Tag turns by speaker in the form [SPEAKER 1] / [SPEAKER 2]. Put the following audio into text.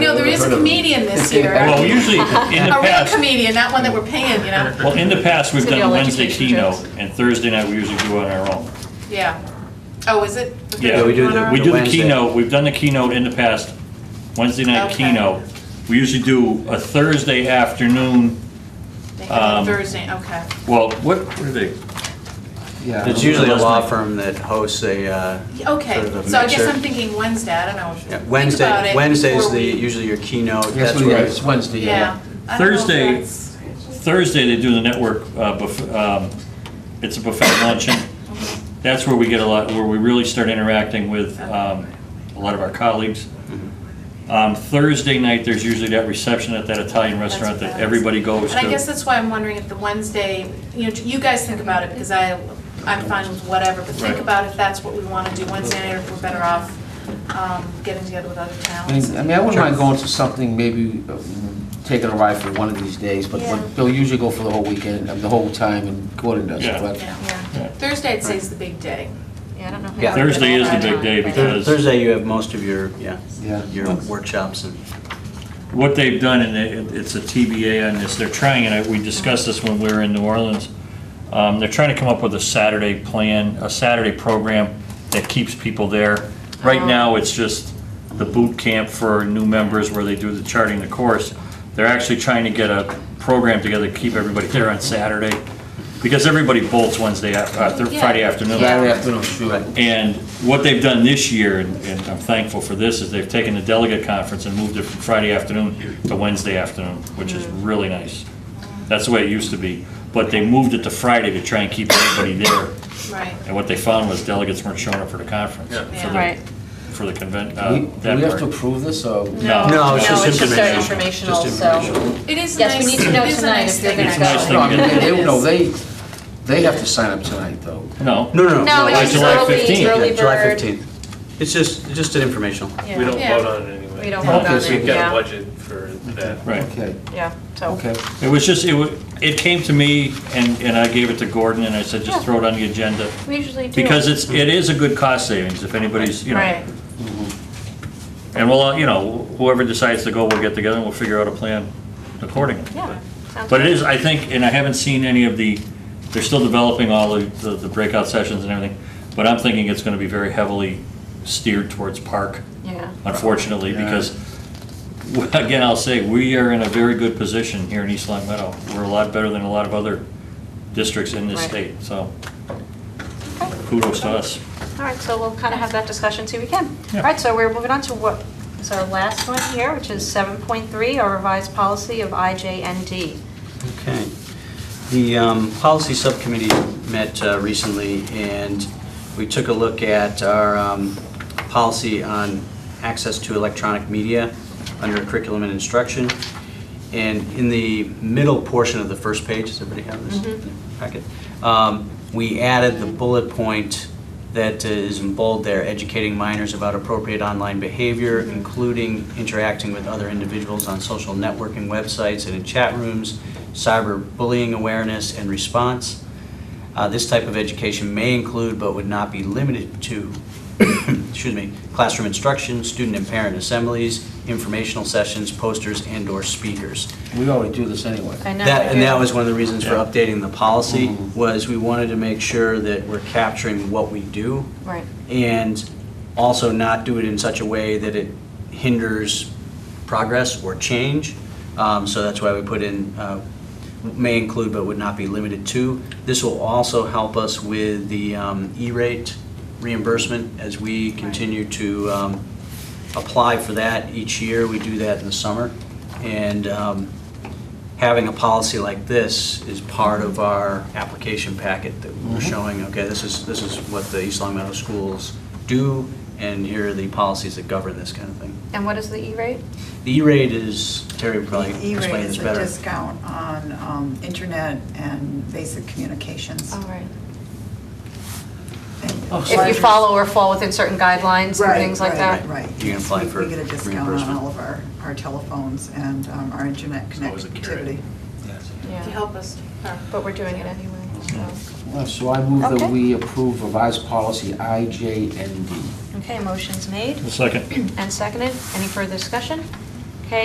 [SPEAKER 1] of them.
[SPEAKER 2] comedian this year.
[SPEAKER 3] Well, usually, in the
[SPEAKER 2] A real
[SPEAKER 3] past,
[SPEAKER 2] comedian, not one that we're paying, you know?
[SPEAKER 3] well, in the past, we've
[SPEAKER 4] It's gonna be
[SPEAKER 3] done
[SPEAKER 4] all
[SPEAKER 3] Wednesday
[SPEAKER 4] education
[SPEAKER 3] keynote,
[SPEAKER 4] jokes.
[SPEAKER 3] and Thursday night, we usually do it on our own.
[SPEAKER 2] Yeah. Oh, is it?
[SPEAKER 3] Yeah,
[SPEAKER 1] we do the-
[SPEAKER 3] We do the
[SPEAKER 1] Wednesday.
[SPEAKER 3] keynote, we've done the keynote in the past, Wednesday night
[SPEAKER 2] Okay.
[SPEAKER 3] keynote. We usually do a Thursday afternoon,
[SPEAKER 2] They
[SPEAKER 3] um,
[SPEAKER 2] have it Thursday, okay.
[SPEAKER 3] well, what, what are they?
[SPEAKER 5] Yeah.
[SPEAKER 1] It's usually a
[SPEAKER 3] Last
[SPEAKER 1] law
[SPEAKER 3] night.
[SPEAKER 1] firm that hosts a, uh, sort of
[SPEAKER 2] Okay,
[SPEAKER 1] a
[SPEAKER 2] so I guess
[SPEAKER 1] mixer.
[SPEAKER 2] I'm thinking Wednesday, I don't know. Think
[SPEAKER 1] yeah,
[SPEAKER 2] about
[SPEAKER 1] Wednesday,
[SPEAKER 2] it
[SPEAKER 1] Wednesday's
[SPEAKER 2] before
[SPEAKER 1] the,
[SPEAKER 2] we-
[SPEAKER 1] usually uh, your keynote.
[SPEAKER 5] Yes,
[SPEAKER 1] That's
[SPEAKER 5] we-
[SPEAKER 1] where,
[SPEAKER 5] it's Wednesday,
[SPEAKER 2] Yeah.
[SPEAKER 5] yeah.
[SPEAKER 2] I don't know if
[SPEAKER 3] Thursday-
[SPEAKER 2] that's-
[SPEAKER 3] Thursday, they do the network, uh, buff- um, it's a buffet luncheon. That's where we get a lot, where we really start interacting with um, a lot of our colleagues. Um, Thursday night, there's usually that reception at that Italian
[SPEAKER 2] that's
[SPEAKER 3] restaurant
[SPEAKER 2] what
[SPEAKER 3] that everybody
[SPEAKER 2] is.
[SPEAKER 3] goes to.
[SPEAKER 2] And I guess that's why I'm wondering if the Wednesday, you know, you guys think about it, because I, I'm fine with whatever, but think
[SPEAKER 3] Right.
[SPEAKER 2] about if that's what we want to do Wednesday night, or if we're better off um, getting together with other
[SPEAKER 5] I
[SPEAKER 2] towns.
[SPEAKER 5] mean, I mean, I wouldn't mind going to something, maybe uh, taking a ride for one of these days, but
[SPEAKER 2] Yeah.
[SPEAKER 5] but they'll usually go for the whole weekend, uh, the whole time, and Gordon does,
[SPEAKER 3] Yeah.
[SPEAKER 5] correct?
[SPEAKER 2] Yeah,
[SPEAKER 3] Yeah.
[SPEAKER 2] yeah. Thursday, I'd say, is the big day.
[SPEAKER 4] Yeah, I don't know. how
[SPEAKER 1] Yeah.
[SPEAKER 4] to put
[SPEAKER 3] Thursday
[SPEAKER 4] it
[SPEAKER 3] is the
[SPEAKER 4] on
[SPEAKER 3] big
[SPEAKER 4] time,
[SPEAKER 3] day
[SPEAKER 4] but-
[SPEAKER 3] because-
[SPEAKER 1] Thursday, you have most of your, yeah,
[SPEAKER 5] Yeah.
[SPEAKER 1] your workshops and.
[SPEAKER 3] What they've done, and it- it's a TBA on this, they're trying, and I- we discussed this when we were in New Orleans, um, they're trying to come up with a Saturday plan, a Saturday program that keeps people there. Right
[SPEAKER 2] Oh.
[SPEAKER 3] now, it's just the boot camp for new members where they do the charting the course. They're actually trying to get a program together to keep everybody there on Saturday, because everybody bolts Wednesday, af- uh, Thur-
[SPEAKER 2] Yeah.
[SPEAKER 3] Friday afternoon.
[SPEAKER 5] Saturday afternoon, sure.
[SPEAKER 3] And what they've done this year, and and I'm thankful for this, is they've taken the delegate conference and moved it from Friday afternoon to Wednesday afternoon, which is
[SPEAKER 4] Mm.
[SPEAKER 3] really nice. That's the way it used to be, but they moved it to Friday to try and keep everybody there.
[SPEAKER 2] Right.
[SPEAKER 3] And what they found was delegates weren't showing up for the conference, for
[SPEAKER 2] Yeah.
[SPEAKER 3] the,
[SPEAKER 4] Right.
[SPEAKER 3] for the convent,
[SPEAKER 5] We-
[SPEAKER 3] uh,
[SPEAKER 5] Do we have to
[SPEAKER 3] that part.
[SPEAKER 5] approve this, or?
[SPEAKER 3] No,
[SPEAKER 1] No, it's
[SPEAKER 3] no,
[SPEAKER 1] just
[SPEAKER 4] it's just our
[SPEAKER 1] information.
[SPEAKER 4] informational, so.
[SPEAKER 2] It is
[SPEAKER 4] Yes,
[SPEAKER 2] nice.
[SPEAKER 4] we need to know
[SPEAKER 2] it is a
[SPEAKER 4] tonight
[SPEAKER 2] nice
[SPEAKER 4] if you're
[SPEAKER 2] thing
[SPEAKER 4] gonna
[SPEAKER 2] to
[SPEAKER 3] go. It's a nice
[SPEAKER 5] No, I
[SPEAKER 3] thing
[SPEAKER 5] mean,
[SPEAKER 3] to
[SPEAKER 5] they,
[SPEAKER 2] It
[SPEAKER 5] they-
[SPEAKER 2] is.
[SPEAKER 5] no, they, they have to sign up tonight, though.
[SPEAKER 3] No.
[SPEAKER 1] No, no, no.
[SPEAKER 4] No,
[SPEAKER 3] it's
[SPEAKER 1] it's
[SPEAKER 4] it's just
[SPEAKER 3] July
[SPEAKER 4] early,
[SPEAKER 3] 15th,
[SPEAKER 4] early
[SPEAKER 1] Yeah, July
[SPEAKER 4] bird.
[SPEAKER 1] 15th. It's just, just an informational.
[SPEAKER 4] Yeah.
[SPEAKER 6] We don't
[SPEAKER 2] Yeah.
[SPEAKER 6] vote on it anyway.
[SPEAKER 4] We don't vote
[SPEAKER 5] Okay,
[SPEAKER 4] on
[SPEAKER 5] so
[SPEAKER 4] it,
[SPEAKER 6] We've got a
[SPEAKER 4] yeah,
[SPEAKER 6] budget for that.
[SPEAKER 3] Right.
[SPEAKER 5] Okay,
[SPEAKER 4] yeah, so.
[SPEAKER 5] okay.
[SPEAKER 3] It was just, it wa, it came to me, and, and I gave it to Gordon, and I said, just
[SPEAKER 4] Yeah.
[SPEAKER 3] throw it on the agenda.
[SPEAKER 4] We usually do.
[SPEAKER 3] Because it's, it is a good cost savings, if anybody's, you know.
[SPEAKER 4] Right,
[SPEAKER 3] And we'll, uh, you know, whoever decides to go, we'll get together and we'll figure out a plan accordingly.
[SPEAKER 4] yeah. sounds
[SPEAKER 3] But it
[SPEAKER 4] good.
[SPEAKER 3] is, I think, and I haven't seen any of the, they're still developing all of the the breakout sessions and everything, but I'm thinking it's gonna be very heavily steered towards park,
[SPEAKER 4] Yeah,
[SPEAKER 3] unfortunately, because, again, I'll say, we are in a very good position here in East Long Meadow. We're a lot better than a lot of other districts in this
[SPEAKER 4] Right.
[SPEAKER 3] state, so kudos to us.
[SPEAKER 4] all right, so we'll kind of have that discussion, see if we can.
[SPEAKER 3] Yeah.
[SPEAKER 4] All right, so we're moving on to what is our last one here, which is 7.3, our revised policy of IJND.
[SPEAKER 1] Okay. The um, policy subcommittee met uh, recently, and we took a look at our um, policy on access to electronic media under curriculum and instruction. And in the middle portion of the first page, does everybody have this in their packet? Um, We added the bullet point that uh, is in bold there, educating minors about appropriate online behavior, including interacting with other individuals on social networking websites and in chat rooms, cyberbullying awareness and response. Uh, This type of education may include but would not be limited to, excuse me, classroom instruction, student and parent assemblies, informational sessions, posters, and/or speakers.
[SPEAKER 5] We already do this anyway.
[SPEAKER 4] I know.
[SPEAKER 1] That, and
[SPEAKER 4] yeah.
[SPEAKER 1] that was one of the reasons for
[SPEAKER 3] Yeah.
[SPEAKER 1] updating the policy,
[SPEAKER 5] Mhm.
[SPEAKER 1] was we wanted to make sure that we're capturing what we do
[SPEAKER 4] Right,
[SPEAKER 1] and also not do it in such a way that it hinders progress or change. Um, So that's why we put in, uh, may include but would not be limited to. This will also help us with the um, E-rate reimbursement as we continue to um, apply for that each year. We do that in the summer. And um, having a policy like this is part of our application packet that
[SPEAKER 7] Mm-hmm.
[SPEAKER 1] we're showing, okay, this is, this is what the East Long Meadow schools do, and here are the policies that govern this kind of thing.
[SPEAKER 4] and what is the E-rate?
[SPEAKER 1] The E-rate is, Terry would probably
[SPEAKER 7] E-rate
[SPEAKER 1] explain this
[SPEAKER 7] is E- a
[SPEAKER 1] better.
[SPEAKER 7] discount on um, internet and basic communications.
[SPEAKER 4] All Oh, right.
[SPEAKER 7] And
[SPEAKER 5] Oh,
[SPEAKER 4] If you
[SPEAKER 7] larger-
[SPEAKER 4] follow or fall within certain guidelines and
[SPEAKER 7] Right,
[SPEAKER 4] things like
[SPEAKER 7] right,
[SPEAKER 4] that?
[SPEAKER 7] Right, right.
[SPEAKER 1] You can apply
[SPEAKER 7] We-
[SPEAKER 1] for
[SPEAKER 7] We get a discount on
[SPEAKER 1] reimbursement.
[SPEAKER 7] all of our, our telephones and um, our internet
[SPEAKER 6] It's always a
[SPEAKER 7] connectivity.
[SPEAKER 6] carrot.
[SPEAKER 2] To
[SPEAKER 4] Yeah,
[SPEAKER 2] help us. uh,
[SPEAKER 4] but we're doing it anyway, so.
[SPEAKER 5] Well, So I move
[SPEAKER 4] Okay.
[SPEAKER 5] that we approve revised policy IJND.
[SPEAKER 4] Okay, motion's made
[SPEAKER 3] Second.
[SPEAKER 4] and seconded. Any further discussion?